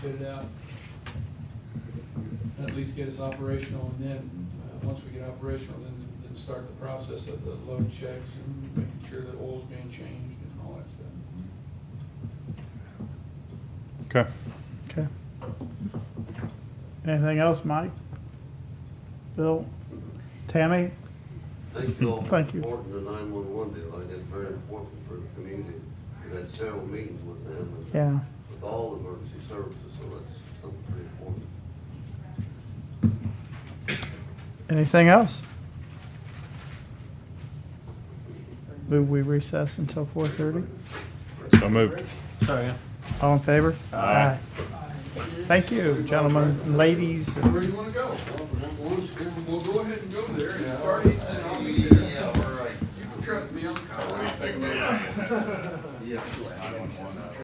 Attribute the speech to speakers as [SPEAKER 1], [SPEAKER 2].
[SPEAKER 1] get it out. At least get us operational, and then, uh, once we get operational, then, then start the process of the load checks and making sure that oil's being changed and all that stuff.
[SPEAKER 2] Okay.
[SPEAKER 3] Okay. Anything else, Mike? Bill? Tammy?
[SPEAKER 4] Thank you all. for
[SPEAKER 3] Thank you.
[SPEAKER 4] Supporting the nine-one-one deal, I think it's very important for the community. We've had several meetings with them and
[SPEAKER 3] Yeah.
[SPEAKER 4] with all the emergency services, so that's something pretty important.
[SPEAKER 3] Anything else? Move we recess until four thirty?
[SPEAKER 2] So moved.
[SPEAKER 3] All in favor?
[SPEAKER 2] Aye.
[SPEAKER 3] Thank you, gentlemen, ladies. and-
[SPEAKER 1] Where do you wanna go? Well, go ahead and go there, and if Artie, then I'll be there.
[SPEAKER 4] Yeah, all right.
[SPEAKER 1] You can trust me, I'm kind of,
[SPEAKER 4] Yeah.